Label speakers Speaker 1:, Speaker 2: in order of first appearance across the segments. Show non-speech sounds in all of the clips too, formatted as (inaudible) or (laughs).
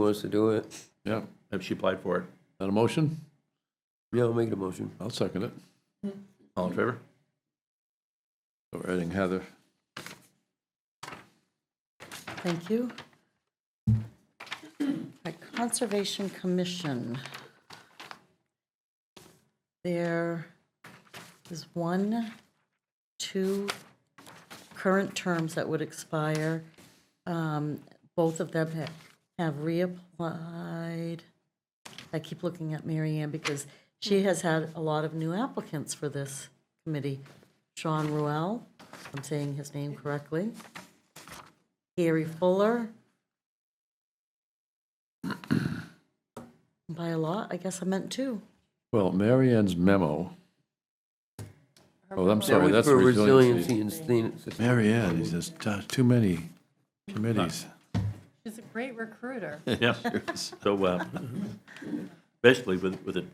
Speaker 1: wants to do it,
Speaker 2: Yeah, if she applied for it. That a motion?
Speaker 1: yeah, I'll make the motion.
Speaker 2: I'll second it. All in favor? So we're adding Heather.
Speaker 3: Thank you. At Conservation Commission, there is one, two current terms that would expire. Um, Both of them ha- have reapplied. I keep looking at Mary Ann because she has had a lot of new applicants for this committee. Sean Ruel, if I'm saying his name correctly. Gary Fuller. (clears throat) By a lot, I guess I meant two.
Speaker 2: Well, Mary Ann's memo. Oh, I'm
Speaker 1: That
Speaker 2: sorry,
Speaker 1: was
Speaker 2: that's
Speaker 1: for
Speaker 2: resiliency.
Speaker 1: Resiliency and sustain-
Speaker 2: Mary Ann, is just uh, too many committees.
Speaker 4: She's a great recruiter.
Speaker 5: Yeah, so uh, basically with, with it,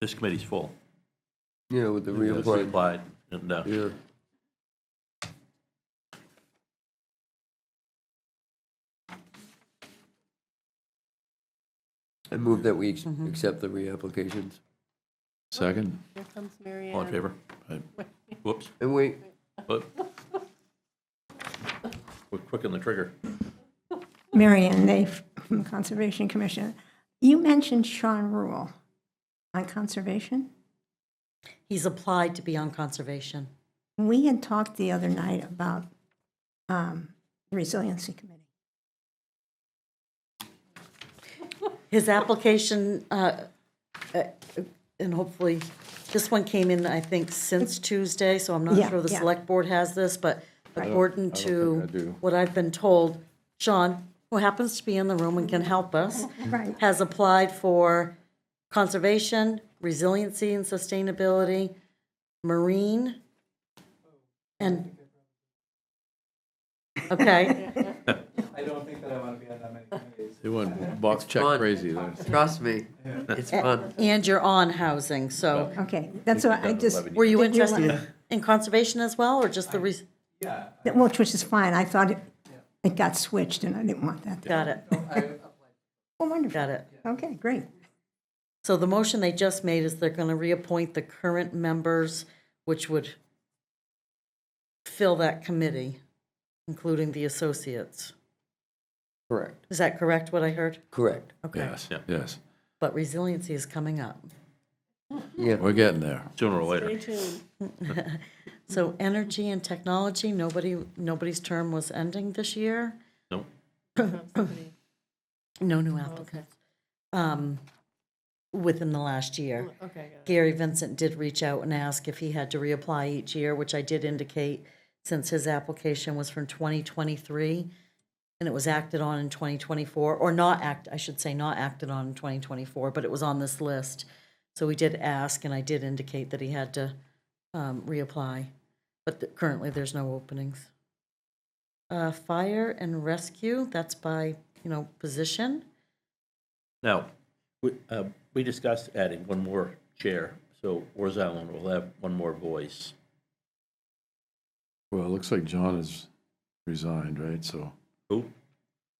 Speaker 5: this committee's full.
Speaker 1: yeah, with the
Speaker 5: It's
Speaker 1: reappointment,
Speaker 5: Applied, and uh,
Speaker 1: yeah. I move that we ex- accept the reapplications.
Speaker 2: Second?
Speaker 4: Here comes Mary
Speaker 5: all in
Speaker 4: Ann.
Speaker 5: favor?
Speaker 2: Right.
Speaker 5: Whoops,
Speaker 1: And wait,
Speaker 5: whoop. We're quick on the trigger.
Speaker 6: Marion Naif from the Conservation Commission. You mentioned Sean Rule on conservation.
Speaker 3: He's applied to be on conservation.
Speaker 6: We had talked the other night about um, the Resiliency Committee.
Speaker 3: His application, uh, uh, and hopefully, this one came in, I think, since Tuesday, so I'm not
Speaker 6: Yeah,
Speaker 3: sure the
Speaker 6: yeah.
Speaker 3: select board has this, but according
Speaker 2: I don't think I
Speaker 3: to
Speaker 2: do.
Speaker 3: what I've been told, Sean, who happens to be in the room and can help us,
Speaker 6: Right.
Speaker 3: has applied for conservation, resiliency and sustainability, marine, and, okay,
Speaker 7: I don't think that I want to be on that many committees.
Speaker 2: They went box check
Speaker 1: fun.
Speaker 2: crazy there.
Speaker 1: trust me, it's fun.
Speaker 3: and you're on housing, so
Speaker 6: Okay, that's what I just,
Speaker 3: were you
Speaker 6: Did you
Speaker 3: interested
Speaker 6: wanna-
Speaker 3: in conservation as well, or just the, res-
Speaker 7: Yeah,
Speaker 6: which which is fine. I thought it, it got switched and I didn't want that.
Speaker 3: got it,
Speaker 7: I,
Speaker 6: Oh, wonderful.
Speaker 3: got it.
Speaker 6: Okay, great.
Speaker 3: So the motion they just made is they're going to reappoint the current members, which would fill that committee, including the associates.
Speaker 1: Correct.
Speaker 3: Is that correct, what I heard?
Speaker 1: Correct,
Speaker 3: Okay,
Speaker 2: Yes,
Speaker 5: Yeah.
Speaker 2: yes.
Speaker 3: but resiliency is coming up.
Speaker 1: yeah.
Speaker 2: We're getting there.
Speaker 5: Sooner or later.
Speaker 4: Stay tuned.
Speaker 3: So energy and technology, nobody, nobody's term was ending this year?
Speaker 5: Nope.
Speaker 3: No
Speaker 4: Oh,
Speaker 3: new applicants. Um, within the last year.
Speaker 4: Oh, Okay, got it.
Speaker 3: Gary Vincent did reach out and ask if he had to reapply each year, which I did indicate since his application was from 2023 and it was acted on in 2024, or not act, I should say, not acted on in 2024, but it was on this list. So we did ask and I did indicate that he had to um, reapply, but th- currently there's no openings. Uh, Fire and rescue, that's by, you know, position.
Speaker 5: Now, we, uh, we discussed adding one more chair, so Wars Island will have one more voice.
Speaker 2: Well, it looks like John has resigned, right? So
Speaker 5: Who?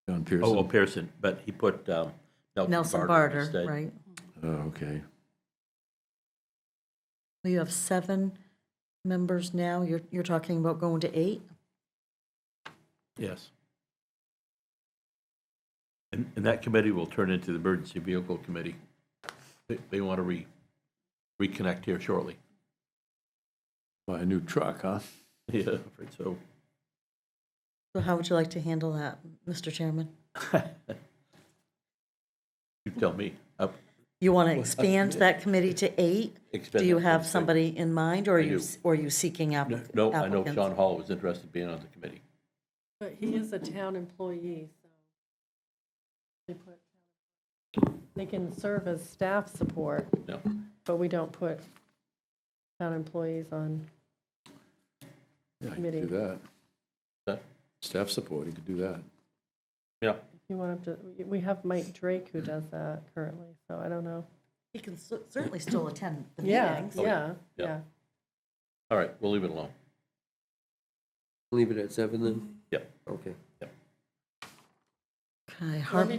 Speaker 2: John
Speaker 5: Oh, oh,
Speaker 2: Pearson.
Speaker 5: Pearson, but he put um,
Speaker 3: Nelson
Speaker 5: Nelson Barter
Speaker 3: Barter,
Speaker 5: instead.
Speaker 3: right?
Speaker 2: Oh, okay.
Speaker 3: Well, you have seven members now. You're, you're talking about going to eight?
Speaker 5: Yes. And, and that committee will turn into the Emergency Vehicle Committee. They, they want to re, reconnect here shortly.
Speaker 2: Buy a new truck, huh?
Speaker 5: (laughs) Yeah, right, so,
Speaker 3: So how would you like to handle that, Mr. Chairman?
Speaker 5: you tell me. Up-
Speaker 3: You want to expand that committee to eight? Do
Speaker 5: expend
Speaker 3: you
Speaker 5: that
Speaker 3: have
Speaker 5: thing.
Speaker 3: somebody in mind, or are
Speaker 5: I
Speaker 3: you,
Speaker 5: do.
Speaker 3: or are you seeking app-
Speaker 5: No,
Speaker 3: applicants?
Speaker 5: No, I know Sean Hall was interested in being on the committee.
Speaker 4: But he is a town employee, so they put, they can serve as staff support,
Speaker 5: No,
Speaker 4: but we don't put town employees on.
Speaker 2: Yeah, you could do
Speaker 4: Committee.
Speaker 2: that.
Speaker 5: That-
Speaker 2: Staff support, you could do that.
Speaker 5: yeah,
Speaker 4: You want him to, we have Mike Drake who does that currently, so I don't know.
Speaker 3: He can cer- certainly still attend the
Speaker 4: Yeah,
Speaker 3: meetings.
Speaker 4: yeah,
Speaker 5: Oh, Yeah.
Speaker 4: yeah.
Speaker 5: all right, we'll leave it alone.
Speaker 1: Leave it at seven then?
Speaker 5: Yep.
Speaker 1: Okay.
Speaker 3: Okay,
Speaker 4: Let
Speaker 3: Harbor
Speaker 4: me